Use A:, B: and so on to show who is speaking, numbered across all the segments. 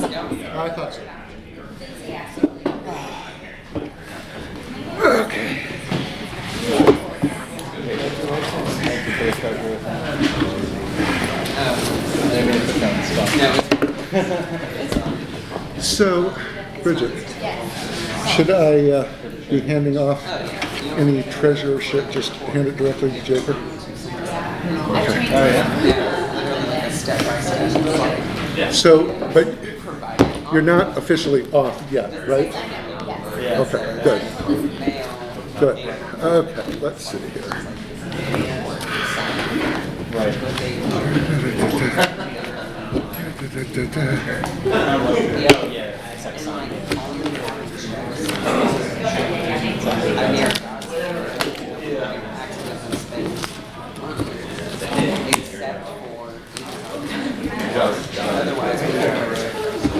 A: I thought so. So, Bridget, should I uh, be handing off any treasure or shit, just hand it directly to Jacob? So, but you're not officially off yet, right? Okay, good. Good. Okay, let's see here. Da-da-da-da.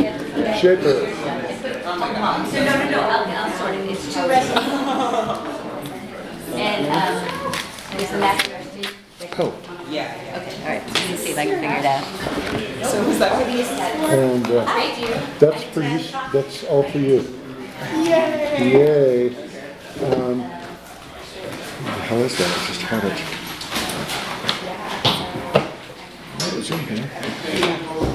A: Jacob,
B: So no, no, no, I'll, I'll sort it, it's two resolutions. And, um, there's the master trustee.
A: oh,
B: Okay, all right, let me see if I can figure it out.
A: and uh,
B: I do.
A: that's for you, that's all for you. Yay! Yay. Um, What the hell is that? I just had it. What was in here?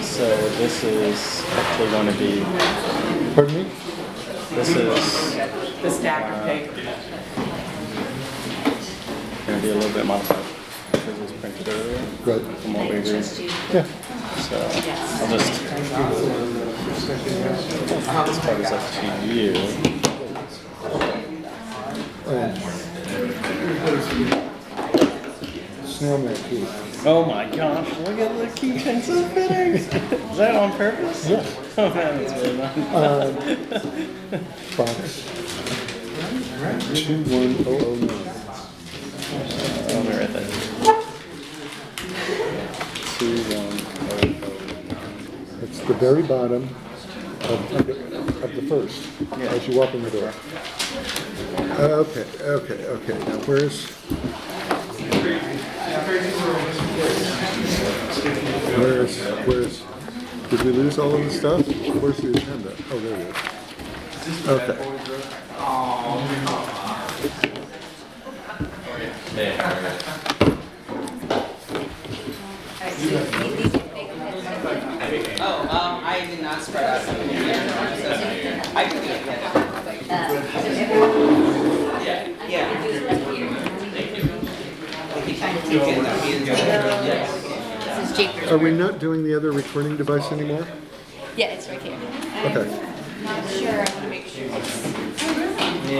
C: So this is actually going to be,
A: Pardon me?
C: this is
D: The stack of papers.
C: going to be a little bit modified because it was printed earlier
A: Right.
C: from what we agreed. So
A: Yeah.
C: I'll just. This part is up to you.
A: Um, Snail mail key.
C: Oh my gosh, look at the keychain so fitters. Is that on purpose?
A: Yeah.
C: Oh man, that's really nice.
A: Box. Two one oh oh nine.
C: Let me write that. Two, one, oh, oh.
A: It's the very bottom of, of the- of the first, as you walk in the door. Okay, okay, okay, now where's? Where's, where's, did we lose all of the stuff? Where's the agenda? Oh, there it is. Okay.
B: All right, so these- these are big heads.
D: Oh, um, I did not spread out some of the papers, so I could do it.
B: Uh, so everyone-
D: Yeah.
B: who's left here? Trying to
D: You
B: take
D: can,
B: it.
D: that means-
B: This is cheaper.
A: Are we not doing the other recording device anymore?
B: Yeah, it's right here.
A: Okay.
B: I'm not sure, I wanna make sure it's.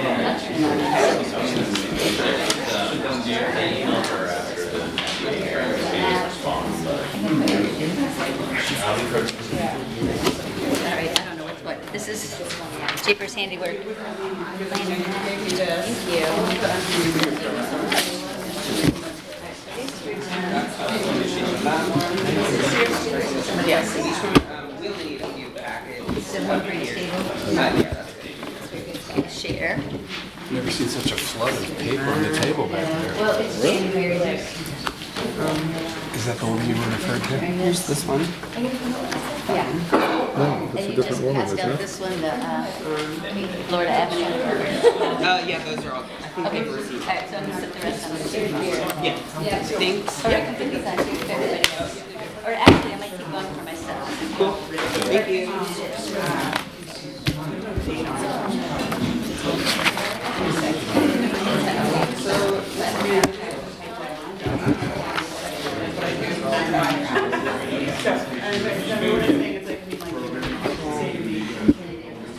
B: All right, I don't know what's what. This is Jeepers handiwork. Thank you.
D: Yes, so each one, um, we'll need a few packets.
B: So one for each table.
D: Uh, yeah, that's it.
B: And Share.
E: Never seen such a flood of paper on the table back there.
B: Well, it's January there.
E: Is that the one you were referring to?
D: Here's this one.
B: Yeah.
A: No, that's
B: And
A: a
B: you just
A: different one,
B: passed
A: isn't
B: out
A: it?
B: this one, the uh, Florida Avenue.
D: Uh, yeah, those are all, I think
B: Okay,
D: they've
B: all
D: received.
B: right, so I'm gonna put the rest on the table here.
D: Yeah, thanks.
B: Or I can put these on too for everybody else. Or actually, I might keep one for myself.
D: Cool. Thank you.